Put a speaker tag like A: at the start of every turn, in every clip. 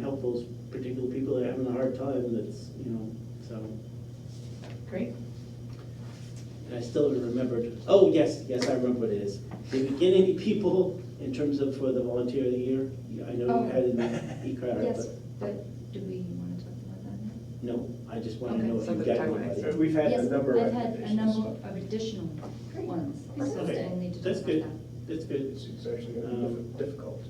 A: help those particular people that are having a hard time, that's, you know, so.
B: Great.
A: And I still haven't remembered, oh, yes, yes, I remember what it is. Did we get any people in terms of for the volunteer of the year? You- I know
B: Oh.
A: you had in the e-crowd,
B: Yes,
A: but
B: but do we want to talk about that now?
A: no, I just want to
B: Okay.
A: know if you
C: Something
A: got
C: to talk about.
A: anybody.
D: We've had a
B: Yes,
D: number of
B: I've had a
D: recommendations.
B: number of additional ones, so
A: Okay,
B: I need to talk
A: that's
B: about
A: good.
B: that.
A: That's good.
D: It's it's actually gonna
A: Um,
D: be diff- difficult.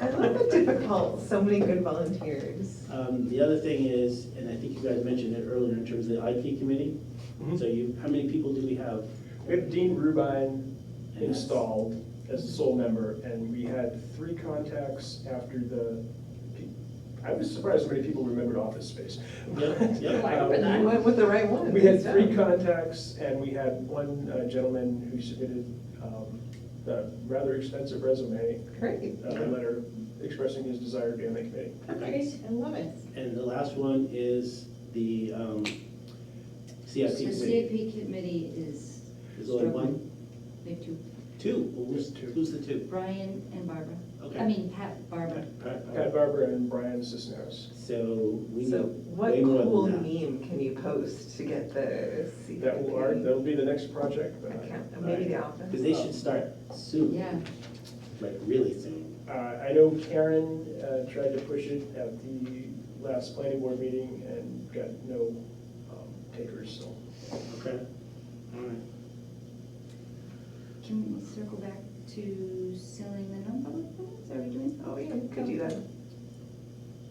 C: I love the difficult, so many good volunteers.
A: Um, The other thing is, and I think you guys mentioned it earlier in terms of the IP committee.
D: Mhm.
A: So you, how many people do we have?
D: We have Dean Rubin
A: And that's-
D: installed as the sole member, and we had three contacts after the, I was surprised how many people remembered office space. Um,
A: Yep, yep.
B: I remember that.
C: You went with the right one.
D: We had
C: so.
D: three contacts, and we had one uh, gentleman who submitted um, the rather extensive resume,
C: Great,
D: uh, letter expressing his desire to be on the committee.
C: great, Oh, I love it.
A: And the last one is the um, CIP
B: The
A: committee.
B: CAP committee is,
A: There's only one,
B: we have two,
A: two? Well, Who's
D: Two.
A: who's the two?
B: Brian and Barbara. I
A: Okay.
B: mean, Pat, Barbara.
A: Pat- Pat-
D: Pat Barber and Brian Cisneros.
A: So we
C: So
A: know
C: what
A: way more
C: cool
A: than that.
C: meme can you post to get the CPP?
D: That will, our- that'll be the uh, next project. but I-
C: Account, maybe the
A: Because
C: office.
A: they should start soon,
B: Yeah,
A: like really soon.
D: Uh, I know Karen uh, tried to push it at the last planning board meeting and got no um, takers, so.
A: Okay. All right.
B: can we circle back to selling the non-public buildings, are we doing?
C: Oh, yeah, could do that.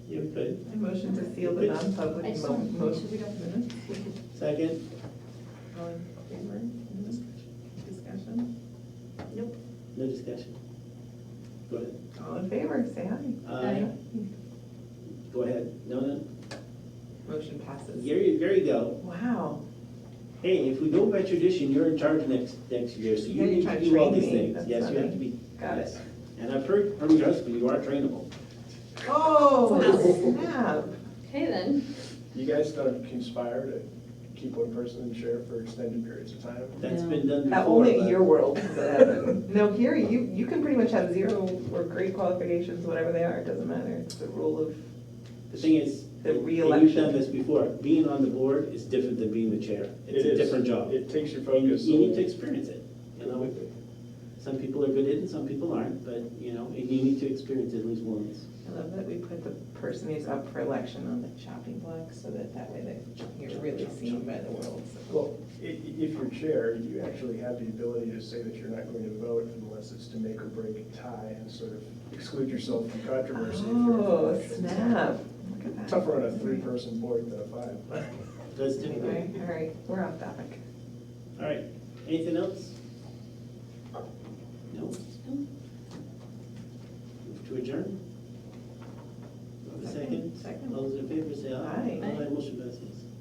A: You're good.
C: I motion to seal the non-public
B: I just
C: mo-
B: want to
C: mo-
B: make sure we don't-
C: minutes.
A: Second?
C: All in favor? Discussion?
B: Nope.
A: No discussion. Go ahead.
C: All in favor, say aye.
A: Aye. Go ahead. No, no.
C: Motion passes.
A: There you, there you go.
C: Wow.
A: Hey, if we go by tradition, you're in charge next, next year, so
C: Yeah,
A: you
C: you're
A: need
C: trying
A: to
C: to
A: do all
C: train
A: these
C: me.
A: things.
C: That's
A: Yes, you have
C: funny.
A: to be.
C: Got it.
A: yes. And I've heard from your husband, you are trainable.
C: Oh,
B: Wow.
C: snap.
B: Okay then.
D: You guys don't conspire to keep one person in chair for extended periods of time?
A: That's
B: No.
A: been done
C: Uh,
A: before.
C: Only
A: but-
C: in your world does that happen. No, here, you, you can pretty much have zero or great qualifications, whatever they are, it doesn't matter. It's the rule of,
A: The thing is,
C: The
A: and you've
C: re-election.
A: done this before, being on the board is different than being the chair. It's
D: It
A: a
D: is.
A: different job.
D: It takes your
A: You
D: focus.
A: you need to experience it, you know? Some people are good at it and some people aren't, but, you know, and you need to experience it at least once.
C: I love that we put the person who's up for election on the chopping block so that that way they you're really seen by the world.
D: Well, i- i- if you're chair, you actually have the ability to say that you're not going to vote unless it's to make or break a tie and sort of exclude yourself from controversy. if you're up for
C: Oh,
D: election.
C: snap. Look at that.
D: Tougher on a three-person board than a five.
A: That's difficult.
C: Anyway, all right, we're off topic.
A: All right, anything else? No? Move to adjourn? Have a second?
C: Second.
A: All those in favor say aye.
C: Aye.
A: motion passes.